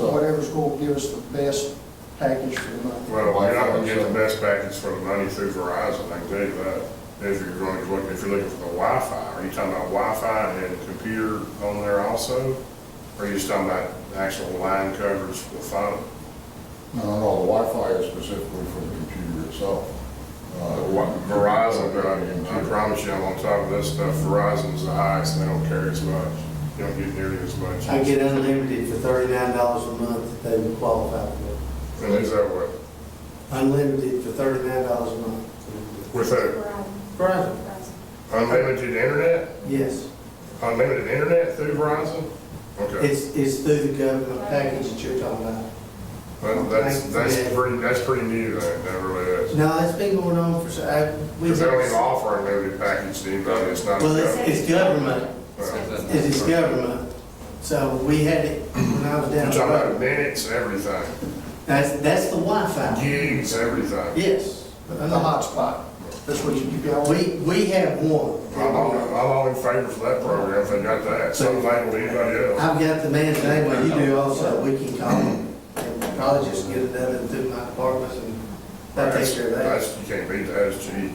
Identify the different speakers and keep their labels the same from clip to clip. Speaker 1: Corps give us the best package for the money.
Speaker 2: Well, you're not gonna get the best package for the money through Verizon, I can tell you that. If you're going to look, if you're looking for the Wi-Fi, are you talking about Wi-Fi and computer on there also? Or are you just talking about actual line coverage for the phone?
Speaker 3: No, no, the Wi-Fi is specifically for the computer itself. Uh,
Speaker 2: What- Verizon, uh, I promise you, I'm on top of this stuff, Verizon's the highest, they don't carry as much. You don't get nearly as much.
Speaker 4: I get unlimited for thirty-nine dollars a month that they would qualify for.
Speaker 2: And is that what,
Speaker 4: Unlimited for thirty-nine dollars a month.
Speaker 2: with a
Speaker 4: Verizon,
Speaker 2: unlimited internet,
Speaker 4: yes.
Speaker 2: unlimited internet through Verizon? Okay.
Speaker 4: It's, it's through the government package that you're talking about.
Speaker 2: Well, that's,
Speaker 4: Thank you.
Speaker 2: that's pretty, that's pretty new, that, that really is.
Speaker 4: No, it's been going on for, so- I, we.
Speaker 2: Because they don't even offer a limited package to anybody, it's not.
Speaker 4: Well, it's, it's government,
Speaker 2: You're
Speaker 4: it is government. So we had it when I was down.
Speaker 2: talking
Speaker 4: the
Speaker 2: about
Speaker 4: road.
Speaker 2: minutes, everything,
Speaker 4: That's, that's the Wi-Fi.
Speaker 2: gigs, everything.
Speaker 4: Yes.
Speaker 1: The the hotspot, that's what you, you got.
Speaker 4: We, we have one.
Speaker 2: I'm all, I'm all in favor for that program, if they got that, something like anybody else.
Speaker 4: I've got the man's name, but you do also, we can call him, and probably just get it done through my department, and that takes care of that.
Speaker 2: That's, you can't beat that, it's cheap.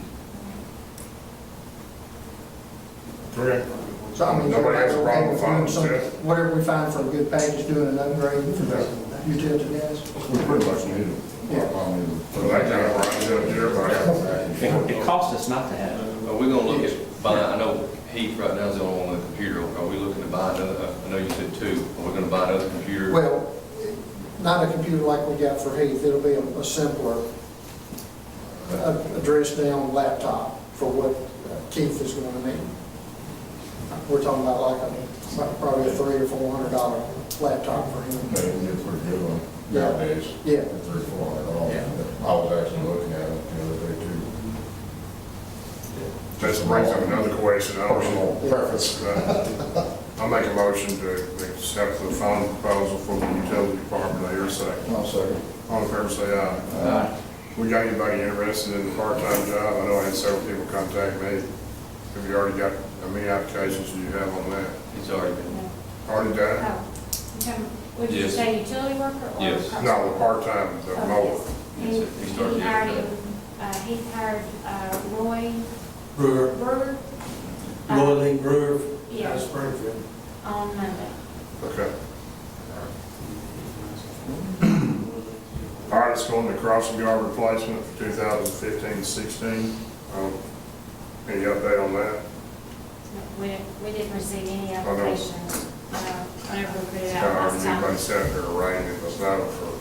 Speaker 2: Okay,
Speaker 1: So I mean,
Speaker 2: Nobody has a
Speaker 1: everybody's
Speaker 2: problem
Speaker 1: okay with
Speaker 2: with that.
Speaker 1: doing something- Whatever we find for a good package, doing an upgrade for the utility guys.
Speaker 3: We pretty much need it.
Speaker 1: Yeah.
Speaker 3: I mean,
Speaker 2: so that kind of rides up to everybody.
Speaker 5: It it costs us not to have it.
Speaker 6: Are we gonna look at buying, I know Heath right now is the only one with a computer, are we looking to buy another, I know you said two, are we gonna buy another computer?
Speaker 1: Well, not a computer like we got for Heath, it'll be a a simpler, a- address down laptop for what uh, Keith is going to need. We're talking about like a, probably a three or four hundred dollar laptop for him.
Speaker 3: They can get pretty good one
Speaker 1: Yeah.
Speaker 3: nowadays.
Speaker 1: Yeah.
Speaker 3: Three, four hundred dollars. I was actually looking at it the other day too.
Speaker 2: That's brings up another question, I don't
Speaker 3: Personal
Speaker 2: know.
Speaker 3: preference.
Speaker 2: Uh, I'll make a motion to accept the final proposal from the utility department, I hear a second.
Speaker 3: I'll second.
Speaker 2: All in favor, say aye. We got anybody interested in a part-time job? I know I had several people contact me. Have you already got, how many applications do you have on that?
Speaker 6: It's already been,
Speaker 2: Already done?
Speaker 7: Oh, okay. Would you
Speaker 6: Yes.
Speaker 7: say utility worker or?
Speaker 6: Yes.
Speaker 2: No, the part-time, the mower.
Speaker 7: Oh,
Speaker 6: Yes,
Speaker 7: yes.
Speaker 6: it-
Speaker 7: And
Speaker 6: it
Speaker 7: he
Speaker 6: started
Speaker 7: hired,
Speaker 6: yesterday.
Speaker 7: him, uh, he hired uh, Roy
Speaker 4: Brewer,
Speaker 7: Brewer uh,
Speaker 4: Roy Lee Brewer out
Speaker 7: Yeah.
Speaker 4: of Springfield.
Speaker 7: on Monday.
Speaker 2: Okay. All right, it's going to crossing guard replacement for 2015-16. Um, Any update on that?
Speaker 7: We didn't, we didn't receive any
Speaker 2: I know.
Speaker 7: applications, uh, whenever we put it out
Speaker 2: Uh,
Speaker 7: last
Speaker 2: Everybody
Speaker 7: time.
Speaker 2: sat there writing, it was not for,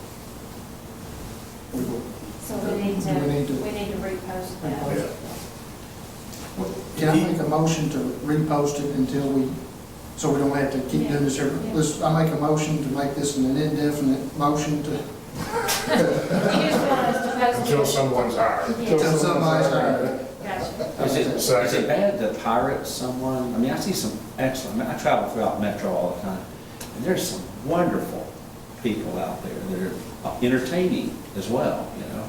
Speaker 7: So we need to,
Speaker 1: We need to-
Speaker 7: we need to repost that.
Speaker 2: yeah.
Speaker 1: Can I make a motion to repost it until we, so we don't have to keep doing this every, let's, I make a motion to make this an indefinite motion to,
Speaker 7: You just want us to
Speaker 2: Until
Speaker 7: post
Speaker 2: someone's hired.
Speaker 7: it?
Speaker 1: until
Speaker 7: Yes,
Speaker 1: somebody's hired.
Speaker 7: gotcha.
Speaker 5: Is it, is
Speaker 2: Second.
Speaker 5: it bad to pirate someone? I mean, I see some excellent, I travel throughout Metro all the time, and there's some wonderful people out there that are entertaining as well, you know?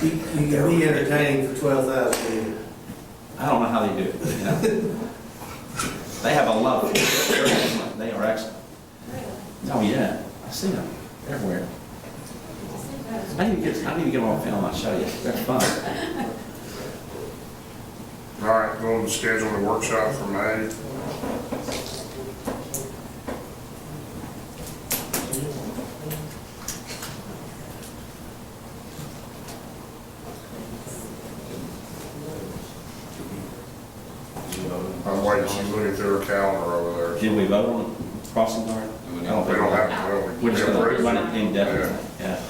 Speaker 4: You you can be entertaining for twelve thousand a year.
Speaker 5: I don't know how they do it, you know? They have a lot of, they're excellent, they are excellent.
Speaker 7: Really?
Speaker 5: Oh, yeah, I see them everywhere.
Speaker 7: I think that was-
Speaker 5: I need to get, I need to get them on film, I'll show you, they're fun.
Speaker 2: All right, going to schedule the workshop for May. I'm waiting, she's looking through her calendar over there.
Speaker 5: Did we vote on crossing guard?
Speaker 6: Do we
Speaker 5: I
Speaker 6: need-
Speaker 5: don't
Speaker 2: We
Speaker 5: think
Speaker 2: don't
Speaker 5: we-
Speaker 2: have, to. we
Speaker 5: We're just gonna
Speaker 2: approved,
Speaker 5: run it indefinitely, yeah.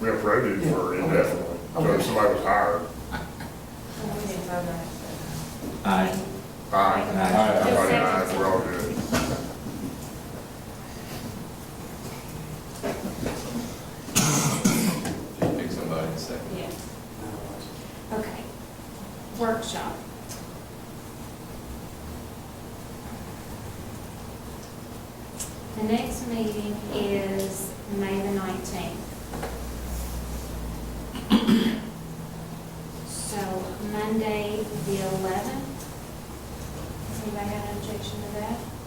Speaker 2: we approved it for indefinitely, so if somebody was hired.
Speaker 7: Oh, we didn't vote on it.
Speaker 5: Aye.
Speaker 2: Aye.
Speaker 5: Aye.
Speaker 2: Everybody ayes, we're all good.
Speaker 6: just pick somebody and say.
Speaker 7: Yeah. Okay. Workshop. The next meeting is May the nineteenth. So Monday, the eleventh. Anybody got an objection to that?